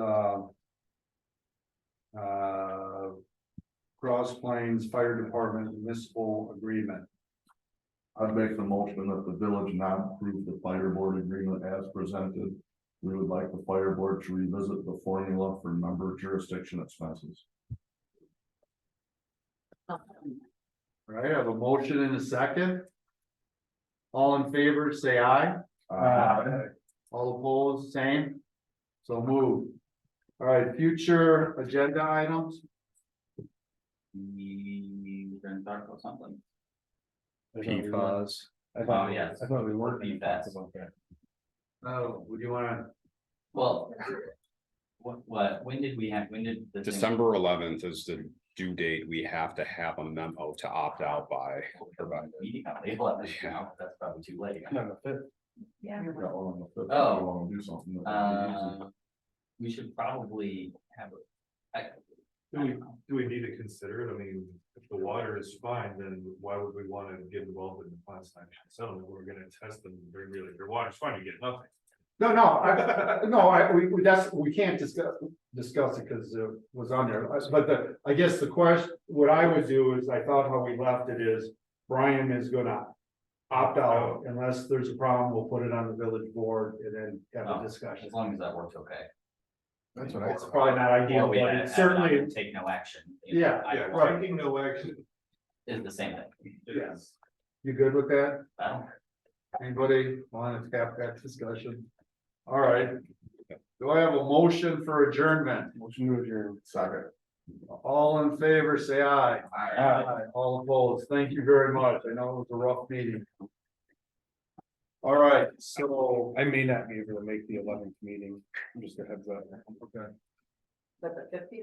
the uh, Cross Plains Fire Department municipal agreement. I'd make the motion that the village not approve the fire board agreement as presented. We would like the fire board to revisit the formula for number jurisdiction expenses. All right, I have a motion and a second. All in favor, say aye. Aye. All opposed, same. So move. All right, future agenda items. We were gonna talk about something. PFAS. Oh, yes. I thought we weren't Be gonna talk fast. about that. Uh, Oh, would you wanna, Well. What, what, when did we have, when did? the thing- December eleventh is the due date. We have to have a memo to opt out by. provided. Meeting on the eleventh, now, that's probably too late. No, no, that- Yeah, well, if they Oh. wanna do something, that would be easy. Uh, we should probably have. a- I- Do we, do we need to consider it? I mean, if the water is fine, then why would we want to get involved in the class action settlement? We're gonna test them, they're really, their water's fine, you get nothing. no, no, I, no, I, we, we- that's, we can't discuss, discuss it, cause it was on there, Uh, but the, I guess the question, what I would do is, I thought how we left it is. Brian is gonna opt out unless there's a problem, we'll put it on the village board and then have a Oh, discussion. As long as that works okay. That's what I, It's probably not ideal, Or we but add- add it on certainly, and Take no action. Yeah, I- right. Taking no action. Is the same thing. yes, you good with that? I don't, Anybody wanna tap that discussion? All right. Do I have a motion for adjournment? motion to adjourn. Second. All in favor, say aye. Aye. All opposed, thank you very much. I know it was a rough meeting. All right, so, I may not be able to make the eleventh meeting, just a heads up. okay. But the fifty